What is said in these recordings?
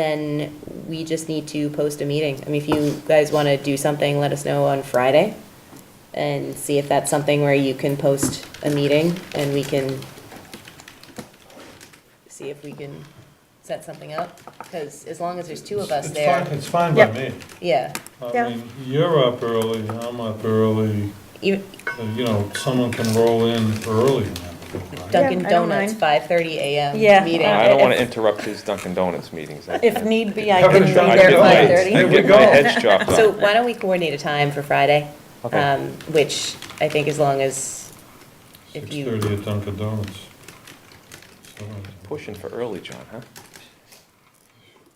then we just need to post a meeting. I mean, if you guys want to do something, let us know on Friday and see if that's something where you can post a meeting and we can see if we can set something up, because as long as there's two of us It's there, fine- It's fine by Yep. me. yeah. I Yeah. mean, you're up early, I'm up early, Even uh, you know, someone can roll in early. and everything, right? Dunkin' Yeah, I don't Donuts, mind. five thirty AM Yeah. meeting. I don't if- want to interrupt his Dunkin' Donuts meetings. I- If need be, I Have can a be shot there there I'd at at get my- five There I'd we thirty. get go. my head chopped So off. why don't we coordinate a time for Friday? Okay. um, Which I think as long as, if you. 6:30 at Dunkin' Donuts. So, Pushing for early, John, huh?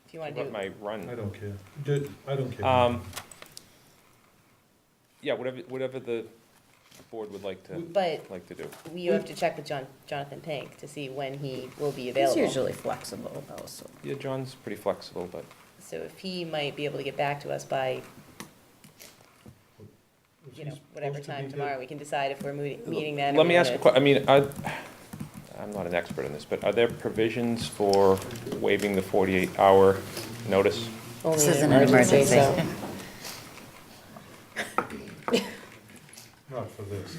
If you want to What do, my I run? don't care. Did- I don't care. Um, Yeah, whatever, whatever the board would like to, but like to do. we have to check with John, Jonathan Pink to see when he will be He's available. usually flexible also. Yeah, John's pretty flexible, but So if he might be able to get back to us by, you know, whatever time tomorrow, we can decide if we're mooti- meeting that. or let me we ask a wanna- que, I mean, I, I'm not an expert in this, but are there provisions for waiving the 48-hour notice? only This isn't an emergency. so- Not for this.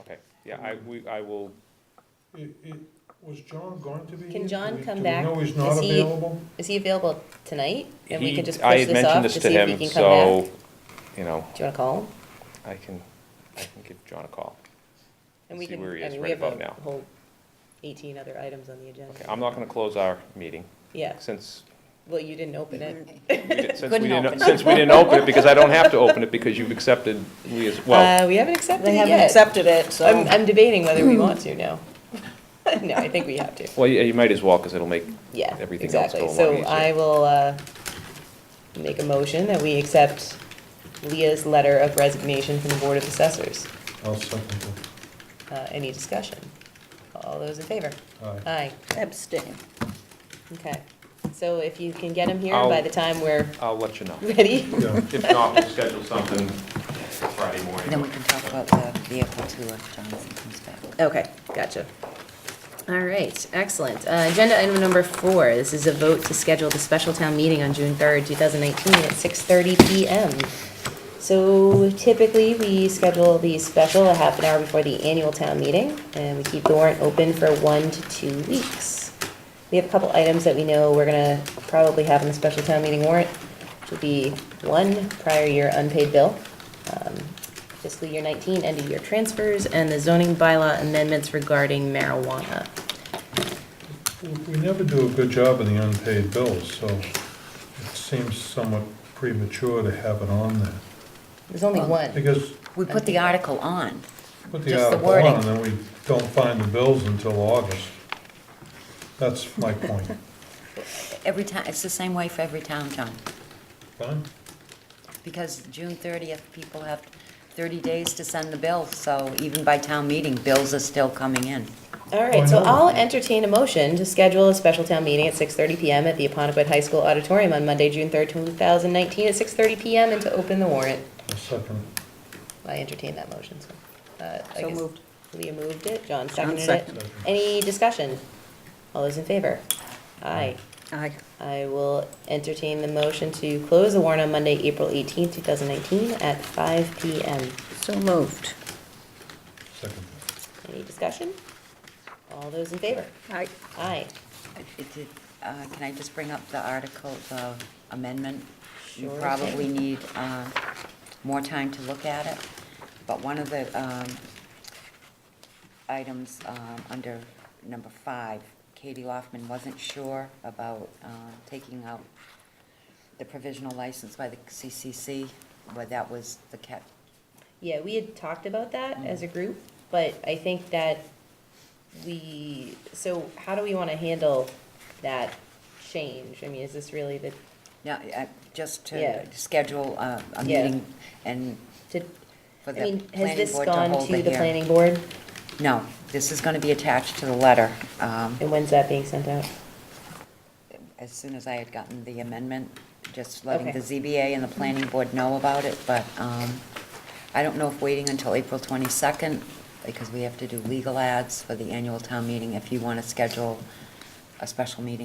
Okay, yeah, I, we, I will, It- it- Was John going to be? Can here? Do John we- come Do we back? know he's not Is he- available? Is he available tonight? And we he- can just I push this had off to mentioned this to see if he him, can come back? so, Do you know, you want to call him? I can, I can give John a call. And we See can, where he I is mean, we right have about a now. whole eighteen other items on the agenda. Okay, I'm not gonna close our meeting, Yeah, since, well, you didn't open it. we did- since we Couldn't didn't, open it. since we didn't open it, because I don't have to open it, because you've accepted me as, well, Uh, we haven't accepted They it haven't yet. accepted it, I'm, so. I'm debating whether we want to now. No, I think we have to. well, yeah, you might as well, because it'll make, Yeah, Everything else exactly. go So along I easier. will, uh, make a motion that we accept Leah's letter of resignation from the Board of Assessors. I'll second that. Uh, any discussion? All those in favor? Aye. Aye, Abstain. okay. So if you can get him here by I'll- the time we're I'll let you know. ready, Yeah. If not, we'll schedule something Friday morning. Then we can talk about the vehicle too if Jonathan comes back. Okay, gotcha. All right, excellent. Uh, Agenda item number four, this is a vote to schedule the special town meeting on June 3rd, 2019 at 6:30 PM. So typically, we schedule the special a half an hour before the annual town meeting, and we keep the warrant open for one to two weeks. We have a couple items that we know we're gonna probably have in the special town meeting warrant, which will be one, prior year unpaid bill, um, fiscal year 19 end of year transfers, and the zoning bylaw amendments regarding marijuana. We we never do a good job in the unpaid bills, so it seems somewhat premature to have it on there. There's only one. Because We put the article on. Put the Just the article on, and wording. then we don't find the bills until August. That's my point. Every town, it's the same way for every town, John. Fine? Because June thirtieth, people have thirty days to send the bill, so even by town meeting, bills are still coming in. All right, so Why not? I'll entertain a motion to schedule a special town meeting at 6:30 PM at the Aponequid High School Auditorium on Monday, June 3rd, 2019, at 6:30 PM, and to open the warrant. A second. I entertain that motion, so. uh, I So guess moved. Leah moved it, John seconded it. seconded. Any discussion? All those in favor? Aye. Aye. I will entertain the motion to close the warrant on Monday, April 18th, 2019, at 5 PM. So moved. Second. Any discussion? All those in favor? Aye. Aye. It did- uh, Can I just bring up the article, the amendment? You Sure probably thing. need uh, more time to look at it, but one of the um, items um, under number five, Katie Loftman wasn't sure about uh, taking out the provisional license by the CCC, but that was the cat, Yeah, we had talked about Mm-hmm. that as a group, but I think that we, so how do we want to handle that change? I mean, is this really the, no, uh, just Yeah. to schedule uh, a Yeah. meeting and to, for I the mean, has planning this board to hold the hearing. gone to the planning board? No, this is going to be attached to the letter. um, And when's that being sent out? As soon as I had gotten the amendment, just letting Okay. the ZBA and the planning board know about it, but um, I don't know if waiting until April 22nd, because we have to do legal ads for the annual town meeting, if you want to schedule a special meeting